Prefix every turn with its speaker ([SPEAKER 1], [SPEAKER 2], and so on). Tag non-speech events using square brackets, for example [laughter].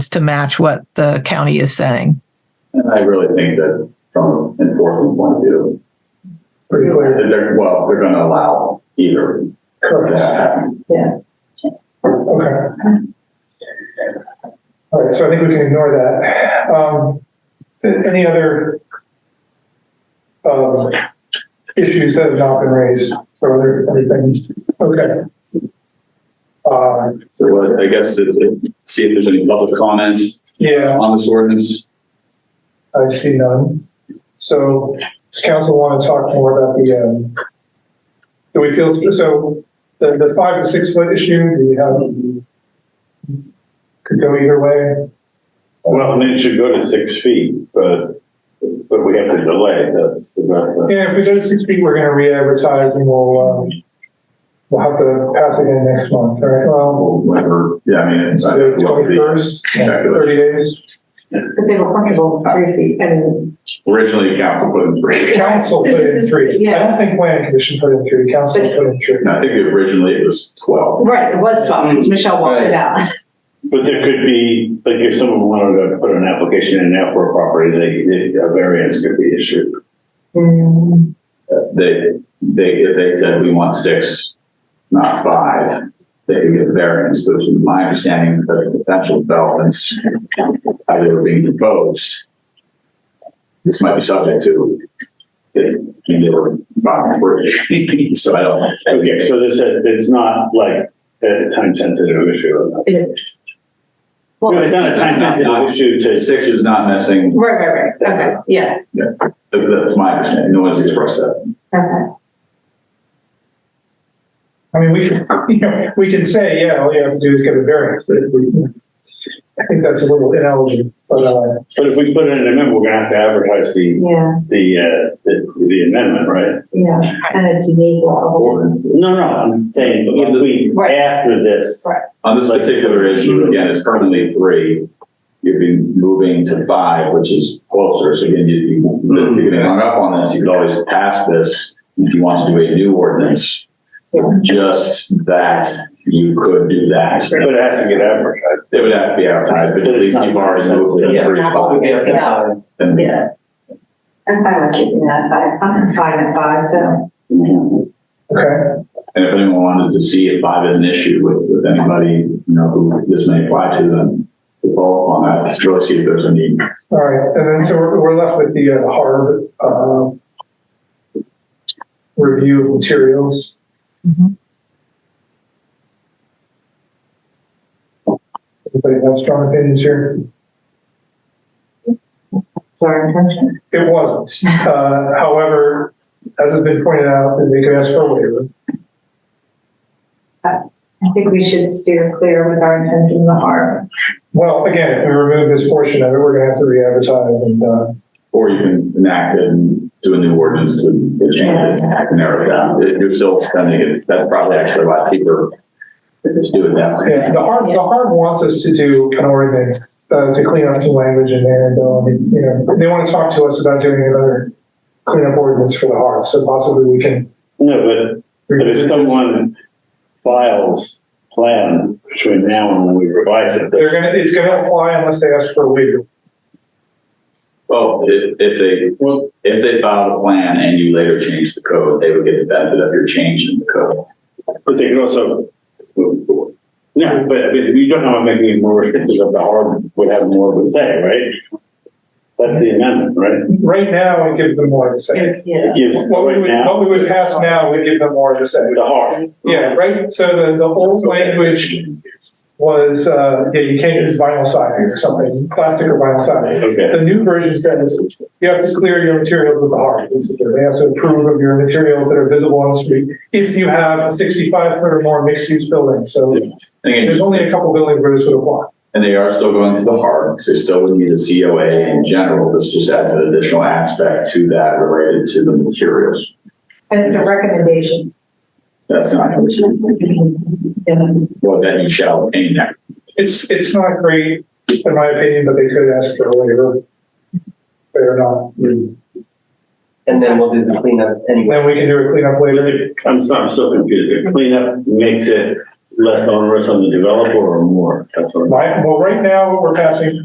[SPEAKER 1] to match what the county is saying.
[SPEAKER 2] And I really think that from an enforcement point of view, pretty clear that they're, well, they're gonna allow either to
[SPEAKER 3] Correct,
[SPEAKER 2] happen.
[SPEAKER 3] okay. All right, so I think we can ignore that. Um, th- any other um, issues that have not been raised? So are there any things? Okay. Uh,
[SPEAKER 2] So what, I guess, is it- see if there's any public comment
[SPEAKER 3] yeah,
[SPEAKER 2] on this ordinance.
[SPEAKER 3] I see none. So does council want to talk more about the, um, do we feel, so the, the five to six foot issue, do you have, could go either way?
[SPEAKER 4] Well, and it should go to six feet, but, but we have to delay, that's, that's,
[SPEAKER 3] Yeah, if we go to six feet, we're gonna re-advertise and we'll, um, we'll have to pass it in next month, all right? Well,
[SPEAKER 2] Well, Whatever, yeah, I mean, it's. uh,
[SPEAKER 3] so the twenty-first, thirty days.
[SPEAKER 5] But they were comfortable with three feet, I mean,
[SPEAKER 2] Originally, council put in three.
[SPEAKER 3] Council put in three. I don't think planning commission put in three, council put in three.
[SPEAKER 2] And I think originally it was twelve.
[SPEAKER 5] right, it was twelve, because Michelle walked it out.
[SPEAKER 4] but there could be, like, if someone wanted to put an application in now for a property, they, they, a variance could be issued. Mm-hmm.
[SPEAKER 2] They, they, if they said we want six, not five, they could get a variance, but from my understanding, the potential developments as they were being proposed, this might be subject to, the they were five or three, [laughs] so I don't.
[SPEAKER 4] Okay, so this is, it's not like a time-sensitive issue or not.
[SPEAKER 5] Well,
[SPEAKER 4] No,
[SPEAKER 5] right,
[SPEAKER 4] it's not a time-sensitive issue to,
[SPEAKER 2] Six is not missing,
[SPEAKER 5] right, right, okay, yeah,
[SPEAKER 2] that's my understanding, no one's expressed that.
[SPEAKER 5] okay.
[SPEAKER 3] I mean, we could, [laughs] you know, we could say, yeah, all you have to do is get a variance, but if we, I think that's a little ineligible, but, uh,
[SPEAKER 4] but if we put in an amendment, we're gonna have to advertise the,
[SPEAKER 5] Yeah,
[SPEAKER 4] the, uh, the the amendment, right?
[SPEAKER 5] yeah, and it delays a lot of.
[SPEAKER 4] No, no, I'm saying, if we,
[SPEAKER 5] Right.
[SPEAKER 4] after this,
[SPEAKER 2] On this particular
[SPEAKER 4] Mm-hmm.
[SPEAKER 2] issue, again, it's currently three. You'd be moving to five, which is closer, so again, you'd be, if
[SPEAKER 4] Mm-hmm.
[SPEAKER 2] you're getting hung up on this, you could always pass this. If you want to do a new ordinance, just that, you could do that.
[SPEAKER 4] but it has to get advertised.
[SPEAKER 2] It would have to be advertised, but at least you've already moved it to three, five,
[SPEAKER 5] Yeah.
[SPEAKER 2] and
[SPEAKER 5] Yeah. I'm fine with keeping that five, I'm fine at five, so.
[SPEAKER 3] okay,
[SPEAKER 2] And if anyone wanted to see if I had an issue with, with anybody, you know, who this may apply to, then to follow up on that, to really see if there's any.
[SPEAKER 3] all right, and then so we're, we're left with the, uh, hard, um, review of materials.
[SPEAKER 1] Mhm.
[SPEAKER 3] Anybody have strong opinions here?
[SPEAKER 5] It's our intention.
[SPEAKER 3] It wasn't. Uh, However, as has been pointed out, that they could ask for a waiver.
[SPEAKER 5] I think we should steer clear with our intention of the harm.
[SPEAKER 3] Well, again, if we remove this portion of it, we're going to have to re-advertise and, uh,
[SPEAKER 2] Or you can enact it and do a new ordinance to to change it, and narrow it down. If You're still spending it, that's probably actually a lot cheaper to just do it that way.
[SPEAKER 3] yeah, the harm, the harm wants us to do an ordinance, uh, to clean up the language in there and, uh, you know, they want to talk to us about doing another cleanup ordinance for the harm, so possibly we can.
[SPEAKER 4] No, but But if someone files plans between now and when we revise it,
[SPEAKER 3] They're going to, it's going to apply unless they ask for a waiver.
[SPEAKER 2] Well, if, if they, if they filed a plan and you later changed the code, they would get the benefit of your change in the code.
[SPEAKER 4] but they could also move forward. No, but I mean, we don't know, making it more restrictive of the harm would have more of a say, right? That's the amendment, right?
[SPEAKER 3] Right now, it gives them more to say.
[SPEAKER 5] Yeah.
[SPEAKER 4] It gives
[SPEAKER 3] What we
[SPEAKER 4] right
[SPEAKER 3] would,
[SPEAKER 4] now
[SPEAKER 3] what we would pass now, we give them more to say.
[SPEAKER 4] the harm.
[SPEAKER 3] Yeah, right, so the, the old language was, uh, yeah, you can't use vinyl siding or something, plastic or vinyl siding.
[SPEAKER 4] Okay,
[SPEAKER 3] The new version says, you have to clear your materials with the heart, basically, they have to approve of your materials that are visible on the street, if you have a sixty-five foot or more mixed-use building, so
[SPEAKER 2] And again,
[SPEAKER 3] there's only a couple buildings where this would apply.
[SPEAKER 2] And they are still going to the hard, because they still would need a COA in general, this just adds an additional aspect to that related to the materials.
[SPEAKER 5] And it's a recommendation.
[SPEAKER 2] That's not,
[SPEAKER 5] Yeah.
[SPEAKER 2] well, that you shall obtain that.
[SPEAKER 3] It's, it's not great, in my opinion, but they could ask for a waiver. Fair enough,
[SPEAKER 6] And then we'll do the cleanup anyway.
[SPEAKER 3] then we can do a cleanup later.
[SPEAKER 4] I'm, I'm still confused, The cleanup makes it less onerous on the developer or more? That's what I'm-
[SPEAKER 3] My, well, right now, what we're passing